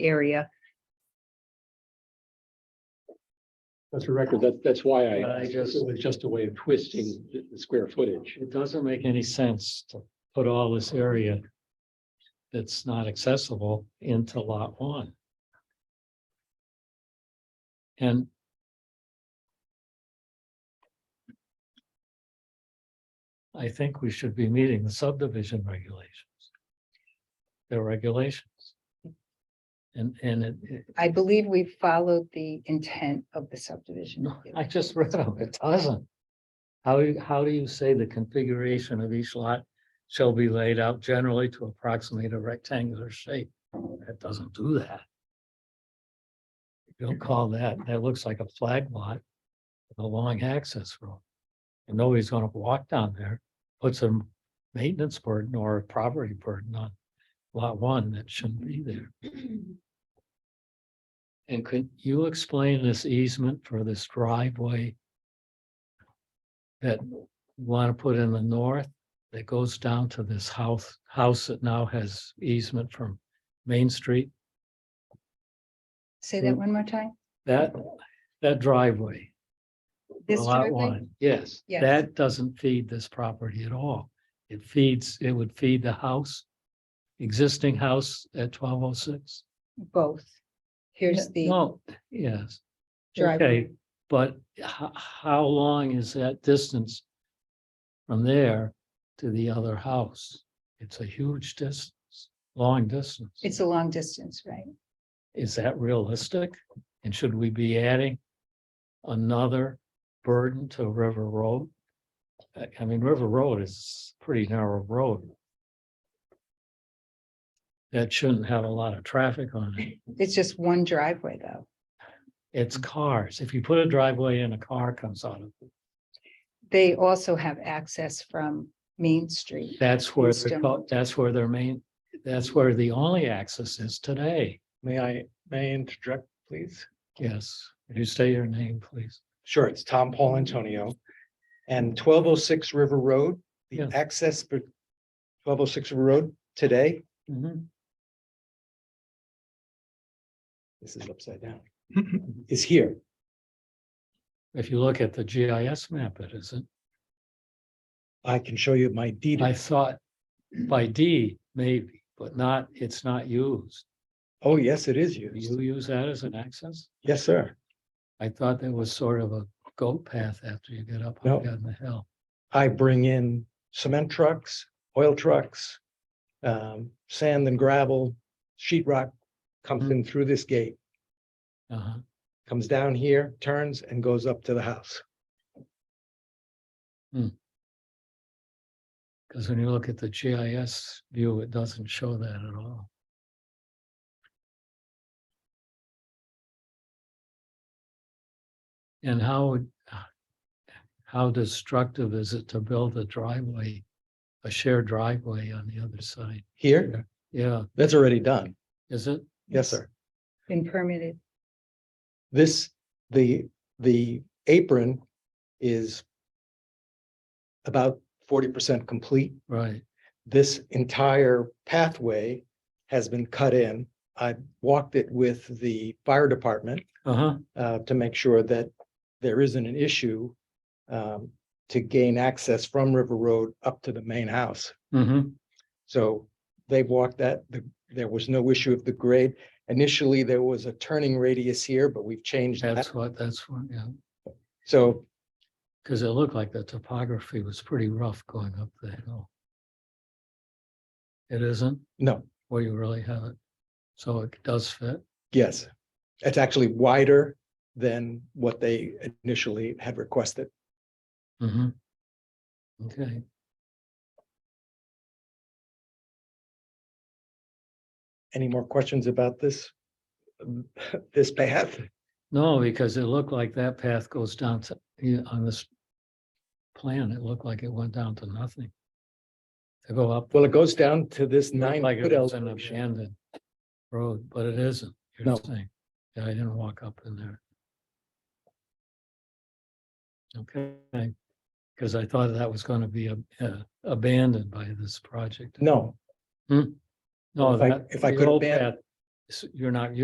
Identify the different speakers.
Speaker 1: area.
Speaker 2: That's a record. That, that's why I,
Speaker 3: I
Speaker 2: it
Speaker 3: just-
Speaker 2: was just a way of twisting the- the square footage.
Speaker 3: It doesn't make any sense to put all this area that's not accessible into lot one. And I think we should be meeting the subdivision regulations. Their regulations. And, and it, it-
Speaker 1: I believe we followed the intent of the subdivision.
Speaker 3: No, I just read them, it doesn't. How, you- how do you say the configuration of each lot shall be laid out generally to approximate a rectangular shape? That doesn't do that. Don't call that, that looks like a flag lot with a long access road. And nobody's gonna walk down there, put some maintenance burden or a property burden on lot one that shouldn't be there. And could you explain this easement for this driveway? That you want to put in the north that goes down to this house, house that now has easement from Main Street?
Speaker 1: Say
Speaker 3: Mm.
Speaker 1: that one more time.
Speaker 3: That, that driveway,
Speaker 1: This
Speaker 3: lot
Speaker 1: driveway?
Speaker 3: one, yes,
Speaker 1: Yes.
Speaker 3: that doesn't feed this property at all. It feeds, it would feed the house, existing house at twelve oh six.
Speaker 1: Both. Here's the
Speaker 3: No, yes.
Speaker 1: driveway.
Speaker 3: Okay, but how, how long is that distance? From there to the other house? It's a huge distance, long distance.
Speaker 1: It's a long distance, right?
Speaker 3: Is that realistic? And should we be adding? Another burden to River Road? I, I mean, River Road is a pretty narrow road. That shouldn't have a lot of traffic on it.
Speaker 1: It's just one driveway, though.
Speaker 3: It's cars. If you put a driveway in, a car comes out of it.
Speaker 1: They also have access from Main Street.
Speaker 3: That's where,
Speaker 1: East
Speaker 3: they're
Speaker 1: and-
Speaker 3: called- that's where their main, that's where the only access is today.
Speaker 4: May I, may I interject, please?
Speaker 3: Yes. Would you say your name, please?
Speaker 4: Sure, it's Tom Paul Antonio. And twelve oh six River Road, the
Speaker 3: Yeah.
Speaker 4: access for twelve oh six River Road today, this is upside down, is here.
Speaker 3: If you look at the GIS map, it isn't.
Speaker 4: I can show you my deed.
Speaker 3: I thought by D maybe, but not, it's not used.
Speaker 4: Oh, yes, it is
Speaker 3: Do
Speaker 4: used.
Speaker 3: you use that as an access?
Speaker 4: Yes, sir.
Speaker 3: I thought that was sort of a goat path after you get up
Speaker 4: No.
Speaker 3: on the hill.
Speaker 4: I bring in cement trucks, oil trucks, um, sand and gravel, sheet rock comes in through this gate,
Speaker 3: Uh-huh.
Speaker 4: comes down here, turns and goes up to the house.
Speaker 3: Because when you look at the GIS view, it doesn't show that at all. And how, would- how destructive is it to build a driveway, a shared driveway on the other side?
Speaker 4: Here,
Speaker 3: Yeah,
Speaker 4: that's already done.
Speaker 3: is it?
Speaker 4: Yes, sir.
Speaker 1: Been permitted.
Speaker 4: This, the, the apron is about forty percent complete.
Speaker 3: Right,
Speaker 4: This entire pathway has been cut in. I walked it with the fire department
Speaker 3: uh-huh,
Speaker 4: uh, to make sure that there isn't an issue um, to gain access from River Road up to the main house.
Speaker 3: mm-hmm,
Speaker 4: So they walked that, the- there was no issue of the grade. Initially, there was a turning radius here, but we've changed that.
Speaker 3: that's what, that's what, yeah,
Speaker 4: So
Speaker 3: because it looked like the topography was pretty rough going up the hill. It isn't?
Speaker 4: No,
Speaker 3: where you really have it. So it does fit.
Speaker 4: yes. It's actually wider than what they initially had requested.
Speaker 3: Mhm. Okay.
Speaker 4: Any more questions about this? This path?
Speaker 3: No, because it looked like that path goes down to, yeah, on this plan, it looked like it went down to nothing. To go up,
Speaker 4: Well, it goes down to this nine.
Speaker 3: looked like
Speaker 4: foot
Speaker 3: it was an
Speaker 4: elevation.
Speaker 3: abandoned road, but it isn't. You're
Speaker 4: No.
Speaker 3: saying, yeah, I didn't walk up in there. Okay, because I thought that was going to be ab- uh, abandoned by this project.
Speaker 4: No,
Speaker 3: No,
Speaker 4: If I-
Speaker 3: that.
Speaker 4: if I
Speaker 3: the
Speaker 4: could
Speaker 3: old
Speaker 4: aban-
Speaker 3: path s- you're not